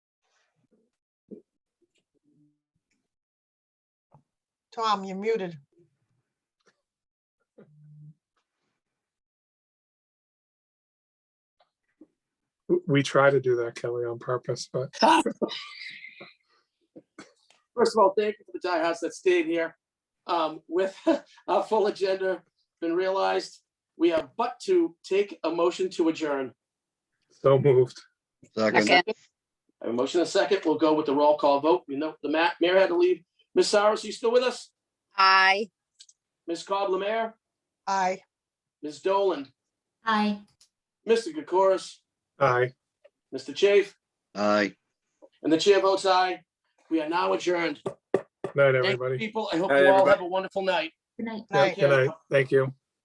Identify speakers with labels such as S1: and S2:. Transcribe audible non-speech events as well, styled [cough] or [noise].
S1: Tom, you're muted.
S2: W- We try to do that, Kelly, on purpose, but
S3: First of all, thank you for the diehards that stayed here. Um, with [laughs] our full agenda been realized, we have but to take a motion to adjourn.
S2: so moved.
S4: Second.
S5: Second,
S3: I have a motion and a second. We'll go with the roll call vote. You know, the ma- mayor had to leave. Ms. Saros, you still with us?
S5: aye.
S3: Ms. Cobb Lemare,
S1: Aye.
S3: Ms. Dolan,
S6: Aye.
S3: Mr. Kokoris,
S2: Aye.
S3: Mr. Chafe,
S4: Aye.
S3: and the chair votes aye. We are now adjourned.
S2: Night,
S3: Thank you,
S2: everybody.
S3: people. I hope
S7: Night,
S3: you all
S7: everybody.
S3: have a wonderful night.
S6: Good night.
S2: Yeah,
S1: Night.
S2: Good night. Thank you.